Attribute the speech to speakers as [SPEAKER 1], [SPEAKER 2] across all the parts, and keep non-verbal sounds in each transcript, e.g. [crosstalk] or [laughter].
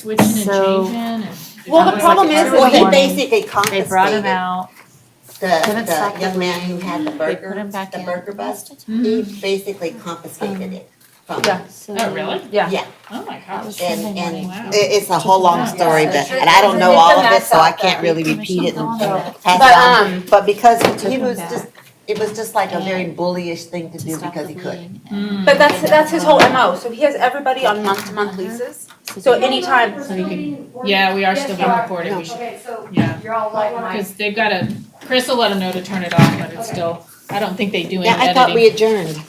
[SPEAKER 1] switching and
[SPEAKER 2] So-
[SPEAKER 1] changing and. mm-hmm.
[SPEAKER 3] Well, the
[SPEAKER 2] Like,
[SPEAKER 3] problem is,
[SPEAKER 2] everyone
[SPEAKER 3] well, he
[SPEAKER 2] wanted-
[SPEAKER 3] basically
[SPEAKER 2] They brought him
[SPEAKER 3] confiscated
[SPEAKER 2] out,
[SPEAKER 3] the,
[SPEAKER 2] him
[SPEAKER 3] the
[SPEAKER 2] second.
[SPEAKER 3] young man who had the
[SPEAKER 2] they put
[SPEAKER 3] burger,
[SPEAKER 2] him back
[SPEAKER 3] the
[SPEAKER 2] in.
[SPEAKER 3] burger bust.
[SPEAKER 1] Mhm.
[SPEAKER 3] He basically confiscated it from him.
[SPEAKER 2] Yeah, so.
[SPEAKER 1] Oh, really?
[SPEAKER 2] Yeah.
[SPEAKER 3] Yeah.
[SPEAKER 1] Oh, my
[SPEAKER 2] That was
[SPEAKER 1] gosh.
[SPEAKER 3] And,
[SPEAKER 2] Sunday morning.
[SPEAKER 3] and
[SPEAKER 1] Wow.
[SPEAKER 3] it, it's a whole long
[SPEAKER 1] Yeah.
[SPEAKER 3] story,
[SPEAKER 1] Yeah.
[SPEAKER 3] but, and I don't know
[SPEAKER 4] It's a
[SPEAKER 3] all of it,
[SPEAKER 4] mess
[SPEAKER 3] so I
[SPEAKER 4] out there.
[SPEAKER 3] can't really repeat it and
[SPEAKER 2] Oh,
[SPEAKER 3] pass
[SPEAKER 4] But,
[SPEAKER 3] it on.
[SPEAKER 4] um,
[SPEAKER 3] But because
[SPEAKER 2] Took
[SPEAKER 3] he
[SPEAKER 2] him
[SPEAKER 3] was
[SPEAKER 2] back.
[SPEAKER 3] just, it was just like a very bullyish thing to
[SPEAKER 2] to
[SPEAKER 3] do
[SPEAKER 2] stop
[SPEAKER 3] because
[SPEAKER 2] the
[SPEAKER 3] he could.
[SPEAKER 2] bleeding
[SPEAKER 1] Mm.
[SPEAKER 2] and-
[SPEAKER 4] But that's, that's his whole MO, so he has everybody on month-to-month leases. So
[SPEAKER 2] they-
[SPEAKER 4] anytime- [laughs]
[SPEAKER 1] So you Yeah, we are still being recorded, we should,
[SPEAKER 5] Okay, so
[SPEAKER 1] yeah,
[SPEAKER 5] you're all like mine.
[SPEAKER 1] because they've got to, Chris will let them know to turn it off, but it's
[SPEAKER 5] Okay.
[SPEAKER 1] still, I don't think they do any
[SPEAKER 3] Yeah, I thought we
[SPEAKER 1] editing.
[SPEAKER 3] adjourned.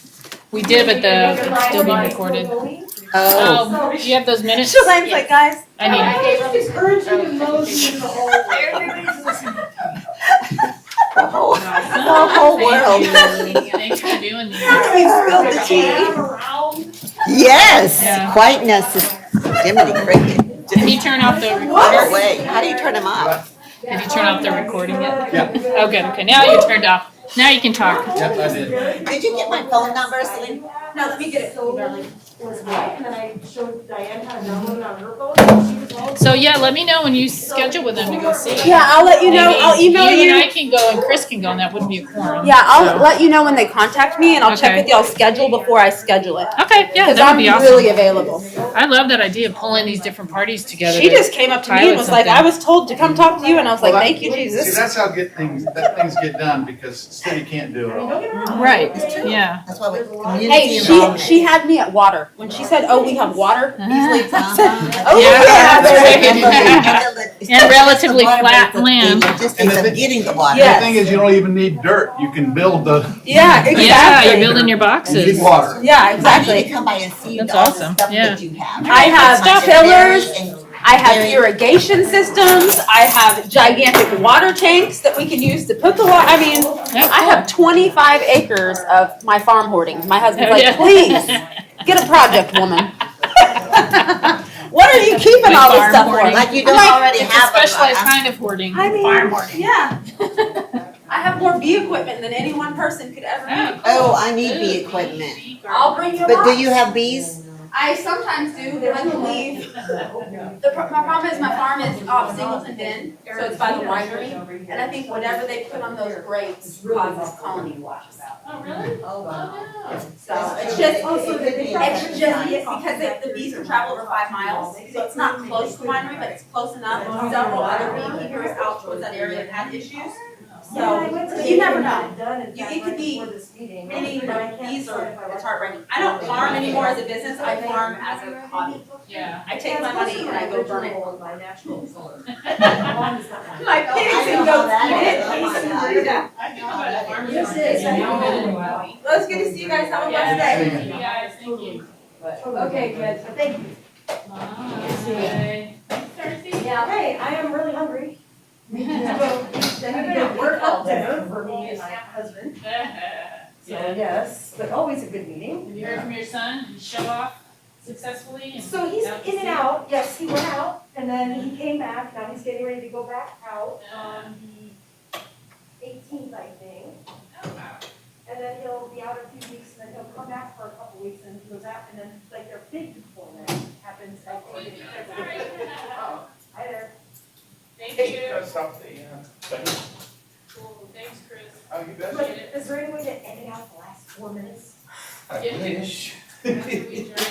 [SPEAKER 1] We did, but the,
[SPEAKER 5] Your
[SPEAKER 1] it's still being
[SPEAKER 5] line's
[SPEAKER 1] recorded.
[SPEAKER 5] still going?
[SPEAKER 3] Oh,
[SPEAKER 1] Oh, do you have those minutes?
[SPEAKER 4] Shalane's like, guys,
[SPEAKER 1] I mean,
[SPEAKER 5] I gave him urgent emotion in the whole
[SPEAKER 1] Oh,
[SPEAKER 5] "Oh,
[SPEAKER 2] Oh.
[SPEAKER 3] the whole,
[SPEAKER 1] the
[SPEAKER 3] the whole world.
[SPEAKER 1] oh, Thanks for doing that.
[SPEAKER 4] we spilled the tea.
[SPEAKER 5] Around.
[SPEAKER 1] Yeah.
[SPEAKER 3] Yes, quite necessary. Jiminy Cricket.
[SPEAKER 1] Did he turn off the recorder?
[SPEAKER 3] No way. How do you turn him off?
[SPEAKER 1] Did you turn off the recording yet?
[SPEAKER 6] Yeah.
[SPEAKER 1] Oh, good, okay, now you turned off, now you can talk.
[SPEAKER 6] Yep, I did.
[SPEAKER 3] Did you get my phone number, Celine?
[SPEAKER 4] No, let me get it.
[SPEAKER 5] So it was white, and then I showed Diane how to download it on her phone, and she was all.
[SPEAKER 1] So, yeah, let me know when you schedule with them to go see.
[SPEAKER 4] yeah, I'll let you know,
[SPEAKER 1] Maybe
[SPEAKER 4] I'll email
[SPEAKER 1] You and I
[SPEAKER 4] you.
[SPEAKER 1] can go and Chris can go, and that wouldn't be a quorum.
[SPEAKER 4] Yeah, I'll
[SPEAKER 1] So-
[SPEAKER 4] let you know when they contact me and I'll check
[SPEAKER 1] Okay.
[SPEAKER 4] with y'all schedule before I schedule it.
[SPEAKER 1] Okay, yeah,
[SPEAKER 4] Cause
[SPEAKER 1] that
[SPEAKER 4] I'm
[SPEAKER 1] would be awesome.
[SPEAKER 4] really available.
[SPEAKER 1] I love that idea of pulling these different parties together.
[SPEAKER 4] She just came up to me
[SPEAKER 1] Pilot
[SPEAKER 4] and was like,
[SPEAKER 1] something.
[SPEAKER 4] I was told to come talk to you and I was like,
[SPEAKER 6] Well, that-
[SPEAKER 4] thank you,
[SPEAKER 6] See,
[SPEAKER 4] Jesus.
[SPEAKER 6] that's how good things, that things get done, because city can't do it all.
[SPEAKER 5] Don't get me wrong.
[SPEAKER 1] Right.
[SPEAKER 5] It's true.
[SPEAKER 1] Yeah.
[SPEAKER 3] That's why we.
[SPEAKER 4] Hey,
[SPEAKER 3] community
[SPEAKER 4] she,
[SPEAKER 3] involvement.
[SPEAKER 4] she had me at water. When she said, oh, we have water, [laughs] Beasley, I said,
[SPEAKER 3] Uh-huh.
[SPEAKER 4] oh,
[SPEAKER 1] Yeah.
[SPEAKER 4] yeah.
[SPEAKER 1] And relatively flat land.
[SPEAKER 3] Just of getting the water.
[SPEAKER 6] The
[SPEAKER 4] Yes.
[SPEAKER 6] thing is, you don't even need dirt, you can build the,
[SPEAKER 4] Yeah,
[SPEAKER 1] Yeah, you're
[SPEAKER 4] exactly.
[SPEAKER 1] building your
[SPEAKER 6] you
[SPEAKER 1] boxes.
[SPEAKER 6] need water.
[SPEAKER 4] Yeah,
[SPEAKER 3] I need
[SPEAKER 4] exactly.
[SPEAKER 3] to come by and see all
[SPEAKER 1] That's
[SPEAKER 3] the
[SPEAKER 1] awesome.
[SPEAKER 3] stuff that you have.
[SPEAKER 4] I have
[SPEAKER 3] Like the
[SPEAKER 4] fillers.
[SPEAKER 3] berries and-
[SPEAKER 4] I have irrigation systems. I have gigantic water tanks that we can use to put the water. I mean, I have 25 acres of my farm hoardings. My husband's
[SPEAKER 1] Oh, yeah. [laughs]
[SPEAKER 4] like, please get a project, woman. [laughs] what are you keeping all this
[SPEAKER 1] Farm
[SPEAKER 4] stuff
[SPEAKER 1] hoarding.
[SPEAKER 4] for?
[SPEAKER 3] Like you don't
[SPEAKER 4] Like,
[SPEAKER 3] already
[SPEAKER 1] It's a
[SPEAKER 3] have. them,
[SPEAKER 1] specialized
[SPEAKER 3] uh,
[SPEAKER 1] kind of hoarding.
[SPEAKER 4] I mean,
[SPEAKER 1] Farm hoarding.
[SPEAKER 4] yeah. [laughs] I have more bee equipment than any one person could ever need.
[SPEAKER 3] Oh, I need bee equipment.
[SPEAKER 4] I'll bring you. a
[SPEAKER 3] But do
[SPEAKER 4] box.
[SPEAKER 3] you have bees?
[SPEAKER 4] I sometimes do when I can leave. The pro- my problem is my farm is off Singleton Bend, so it's by the winery. And I think whatever they put on those grapes causes colony washes.
[SPEAKER 1] Oh, really? Oh,
[SPEAKER 4] So it's just,
[SPEAKER 3] Oh, so the bees-
[SPEAKER 4] it's just because they- the bees can travel over five miles. So it's not close to the winery, but it's close enough. Several other beekeepers out towards that area have had issues. So you never know. You- it could be Many bees are, it's heartbreaking. I don't farm anymore as a business. I farm as a hobby.
[SPEAKER 1] Yeah.
[SPEAKER 4] I take my money and I go burn it.
[SPEAKER 5] By natural
[SPEAKER 4] [laughs]
[SPEAKER 5] color.
[SPEAKER 1] [laughs]
[SPEAKER 4] My pigs and goats eat it. Please
[SPEAKER 5] [laughs]
[SPEAKER 4] do that.
[SPEAKER 1] I think about farmers
[SPEAKER 5] This
[SPEAKER 1] market.
[SPEAKER 5] is-
[SPEAKER 1] Yeah.
[SPEAKER 4] Well, it's good to see you guys. Have a blessed
[SPEAKER 1] Yeah,
[SPEAKER 4] day.
[SPEAKER 1] thank you guys, thank you.
[SPEAKER 5] Okay, good, thank you.
[SPEAKER 1] Bye. Thursday.
[SPEAKER 5] Yeah, hey, I am really hungry.
[SPEAKER 4] [laughs]
[SPEAKER 5] Then we did work all dinner for me and my husband, so
[SPEAKER 1] Yeah.
[SPEAKER 5] yes, but always a good meeting.
[SPEAKER 1] Have you heard from your son? Did he show off successfully? and-
[SPEAKER 5] So he's in and out, yes, he went out, and then he came back, now he's getting ready to go back out on the eighteenth, I think.
[SPEAKER 1] um, Oh, wow.
[SPEAKER 5] And then he'll be out a few weeks, and then he'll come back for a couple weeks, and he goes out, and then like their big deployment happens, I think. in February. Oh, Hi there.
[SPEAKER 1] Thank you.
[SPEAKER 6] Oh,
[SPEAKER 1] Cool. Thanks, Chris.
[SPEAKER 6] you
[SPEAKER 5] But is there any way to edit out the last four minutes?
[SPEAKER 6] I wish.
[SPEAKER 1] After we adjourn.